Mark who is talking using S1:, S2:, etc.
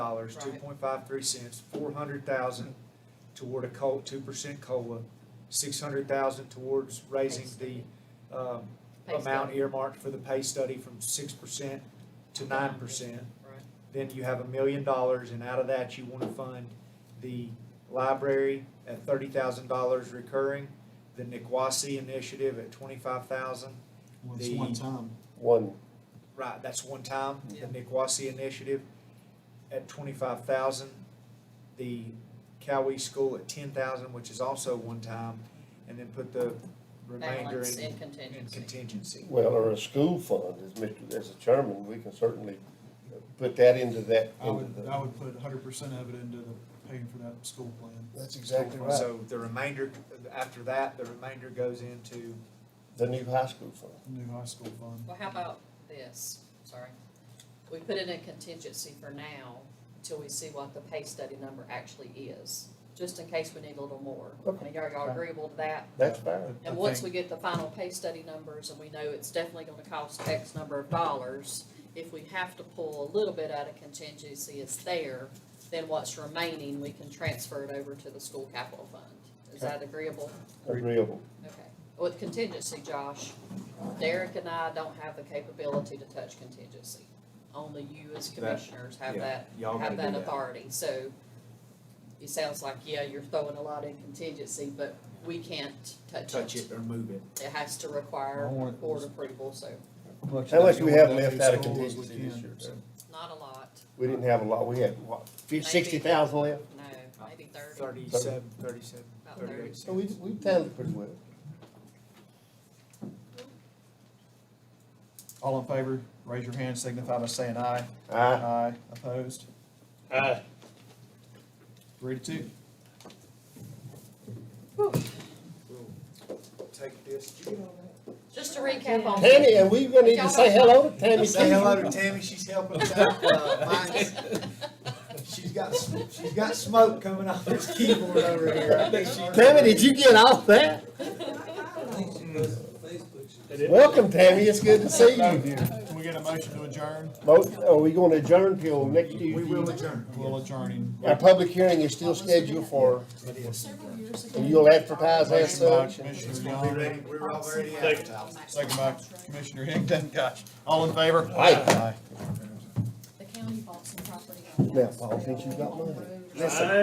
S1: dollars, two point five three cents, four hundred thousand toward a co, two percent COLA, six hundred thousand towards raising
S2: Pay
S1: the, um,
S2: Pay
S1: amount
S2: study.
S1: earmarked for the pay study from six percent to nine percent.
S2: Right.
S1: Then you have a million dollars, and out of that, you wanna fund the library at thirty thousand dollars recurring, the Niquosi initiative at twenty-five thousand,
S3: Well, it's
S1: The-
S3: one time.
S4: One,
S1: Right, that's one time,
S2: Yeah.
S1: the Niquosi initiative at twenty-five thousand, the Cowee School at ten thousand, which is also one time, and then put the remainder
S2: Balance
S1: in,
S2: and
S1: in
S2: contingency.
S1: contingency.
S4: well, or a school fund, as Mr., as a chairman, we can certainly put that into that,
S3: I
S4: into
S3: would, I
S4: the.
S3: would put hundred percent of it into the paying for that school plan.
S4: That's exactly right,
S1: So the remainder, after that, the remainder goes into,
S4: the new high school fund.
S3: new high school fund.
S2: Well, how about this, sorry, we put it in contingency for now until we see what the pay study number actually is, just in case we need a little more.
S4: Okay.
S2: And are y'all agreeable to that?
S4: That's fair.
S3: I
S2: And once we get
S3: think-
S2: the final pay study numbers and we know it's definitely gonna cost X number of dollars, if we have to pull a little bit out of contingency, it's there, then what's remaining, we can transfer it over to the school capital fund. Is that agreeable?
S4: Agreeable.
S2: Okay, with contingency, Josh, Derek and I don't have the capability to touch contingency. Only you as commissioners have that,
S5: Y'all gotta
S2: have
S5: do
S2: that
S5: that.
S2: authority, so it sounds like, yeah, you're throwing a lot in contingency, but we can't touch
S5: Touch
S2: it.
S5: it or move it.
S2: It has to require
S3: I want-
S2: board approval, so
S4: How much do we have
S3: Well,
S4: left out of
S3: school is
S4: contingency this
S3: within,
S4: year?
S3: so-
S2: not a lot,
S4: We didn't have a lot, we had, what, sixty thousand left?
S2: no, maybe thirty,
S1: thirty-seven, thirty-seven,
S2: About
S1: thirty-eight
S4: So we,
S1: cents.
S4: we handled it pretty well.
S3: All in favor, raise your hand, signify by saying aye.
S4: Aye.
S3: Aye. Opposed?
S4: Aye.
S3: Three to two.
S1: We'll Take this, Did you get all that?
S2: just to recap on.
S4: Tammy, and we're gonna need to say hello to Tammy.
S1: Say hello
S4: Keeler.
S1: to Tammy, she's helping us out, uh, mine's- she's got, sm- she's got smoke coming off this keyboard over here. I think she-
S4: Tammy, did you get all that? Welcome, Tammy, it's good to see you.
S3: Can we get a motion to adjourn?
S4: Both, are we gonna adjourn till next Tuesday?
S1: We will adjourn.
S3: We'll adjourn in
S4: Our public hearing is still scheduled for,
S1: It is.
S4: and you'll advertise as
S3: Motion by
S4: such.
S1: We
S3: Commissioner Young,
S1: ready, we're already advertised.
S3: second by Commissioner Higdon, gosh, all in favor?
S4: Aye.
S6: The county bought some property on
S4: Now,
S6: Bass
S4: Paul, since you got
S6: Hill on
S4: money.
S6: Road.
S4: Listen.